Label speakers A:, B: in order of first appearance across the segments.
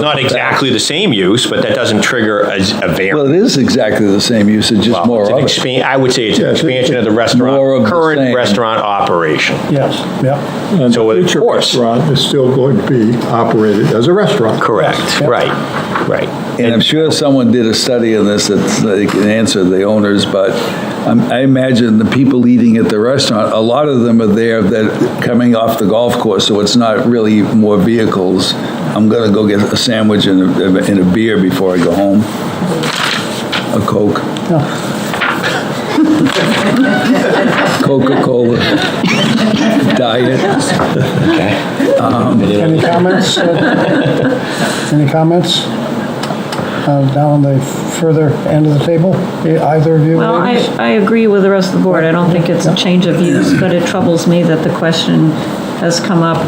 A: not exactly the same use, but that doesn't trigger a, a
B: Well,
A: variance.
B: it is exactly the same usage, just more
A: It's
B: of
A: an
B: it.
A: expan- I would say it's an
C: Yeah, it's-
A: expansion of the
B: More of
A: restaurant,
B: the
A: current
B: same.
A: restaurant operation.
C: Yes, yeah. And
A: So
C: the
A: of
C: future
A: course-
C: restaurant is still going to be operated as a restaurant.
A: Correct, right, right.
B: And I'm sure someone did a study on this that's- that they can answer the owners, but um, I imagine the people eating at the restaurant, a lot of them are there that coming off the golf course, so it's not really more vehicles. I'm gonna go get a sandwich and a, and a beer before I go home. A Coke. Coca-Cola. Diet.
D: Any comments? uh, Any comments? uh, Down the further end of the table, E- either of you
E: Well, I,
D: ladies?
E: I agree with the rest of the board. I don't think it's a change of use, but it troubles me that the question has come up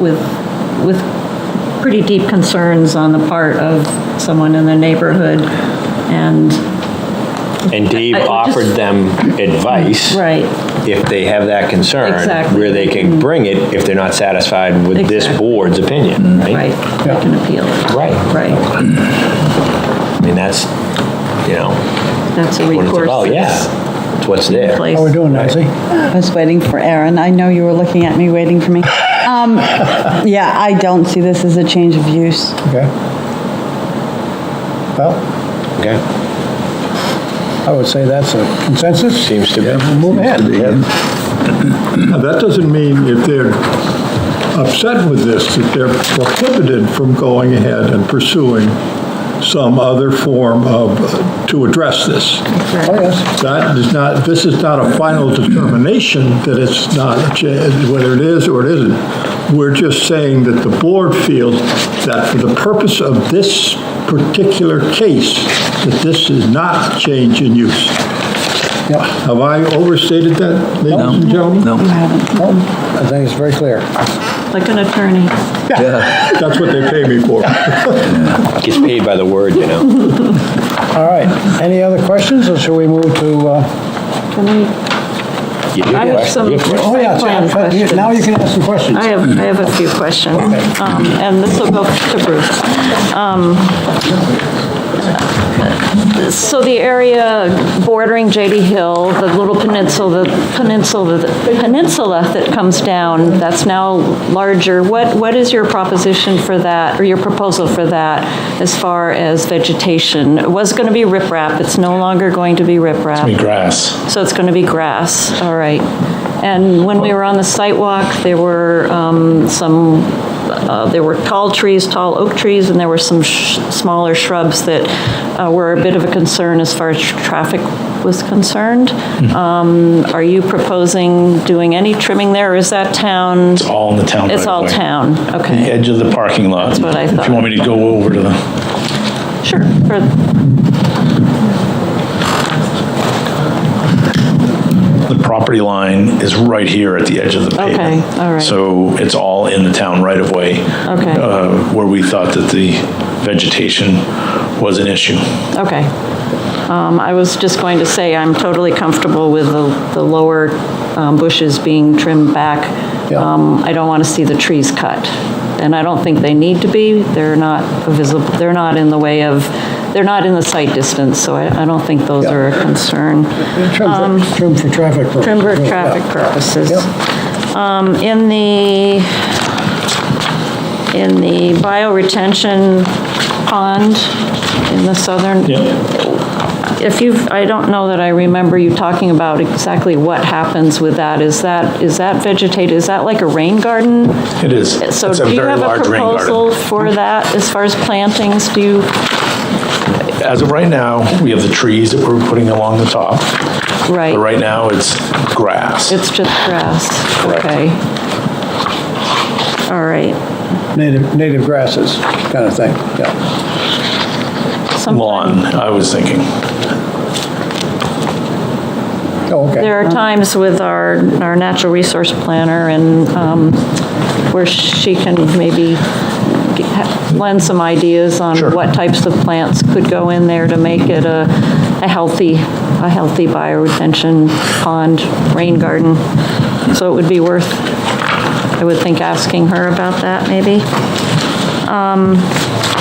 E: with, with pretty deep concerns on the part of someone in the neighborhood. And,
A: And Dave
E: I- I just-
A: offered them advice.
E: right,
A: If they have that concern.
E: Exactly.
A: Where they can bring it if they're not satisfied with this
E: Exactly.
A: board's opinion,
E: right,
A: right?
E: they can appeal it.
A: Right.
E: Right,
A: I mean, that's, you know,
E: that's a
A: what it's
E: recourse.
A: about, yeah. It's what's there.
E: place.
D: How we Oh, doing, Nancy?
F: I was waiting for Aaron. I know you were looking at me, waiting for me. Um, Yeah, I don't see this as a change of use.
D: Okay. Well,
A: Okay,
D: I would say that's a consensus.
A: seems to be.
D: Move ahead.
B: Yeah.
C: Now, that doesn't mean if they're upset with this, that they're prohibited from going ahead and pursuing some other form of, uh, to address this.
D: Oh, yes.
C: That is not, this is not a final determination that it's not, a cha- whether it is or it isn't. We're just saying that the board feels that for the purpose of this particular case, that this is not a change in use.
D: Yep.
C: Have I overstated that, ladies and gentlemen?
B: No.
F: You haven't.
D: Well, I think it's very clear.
E: Like an attorney.
C: That's what they pay me for.
A: Gets paid by the word, you know?
D: All right. Any other questions, or shall we move to, uh,
E: Can we,
A: You do
E: I have
A: question- you
E: some-
A: question.
D: oh, yeah,
E: Plan
D: it's- now you can ask some questions.
E: I have, I have a few questions, um, and this will go to Bruce. Um, so the area bordering JD Hill, the little peninsula, the peninsula, the peninsula that comes down, that's now larger. What, what is your proposition for that, or your proposal for that, as far as vegetation? It was going to be riprap, it's no longer going to be riprap. It's grass. So it's going to be grass, all right. And when we were on the sidewalk, there were um, some, uh, there were tall trees, tall oak trees, and there were some sh- smaller shrubs that uh, were a bit of a concern as far as tr- traffic was concerned. Um, Are you proposing doing any trimming there, or is that town? It's
G: all in the town right
E: It's all
G: away.
E: town,
G: The
E: okay.
G: edge of the parking lot.
E: That's what I
G: If
E: thought.
G: you want me to go over to the,
E: Sure. for-
G: the property line is right here at the edge of the pavement.
E: Okay, all right.
G: So it's all in the town right of way.
E: Okay.
G: uh, Where we thought that the vegetation was an issue.
E: Okay. Um, I was just going to say, I'm totally comfortable with the the lower um, bushes being trimmed back.
D: Yeah.
E: Um, I don't want to see the trees cut, and I don't think they need to be. They're not a visible, they're not in the way of, they're not in the sight distance, so I I don't think those
D: Yeah.
E: are a concern.
D: Trim for- Trim for traffic purposes.
E: Trim um, for
D: Yeah.
E: traffic purposes. Um, In the, in the bioretention pond in the southern, if you've, I don't know that I remember you talking about exactly what happens with that. Is that, is that vegetated, is that like a rain garden?
G: It is.
E: So
G: It's
E: do you
G: very
E: have a
G: large rain garden.
E: proposal for that as far as plantings? Do you,
G: As of right now, we have the trees that we're putting along the top.
E: right?
G: But right now, it's grass.
E: It's just grass?
G: Correct.
E: Okay. All right.
D: Native, native grasses, kind of thing, yeah.
E: Sometime-
G: Lawn, I was thinking.
D: Oh, okay.
E: There are times with our, our natural resource planner and um, where she can maybe g- ha- lend some ideas on
G: Sure.
E: what types of plants could go in there to make it a, a healthy, a healthy bioretention pond, rain garden. So it would be worth, I would think, asking her about that maybe. Um,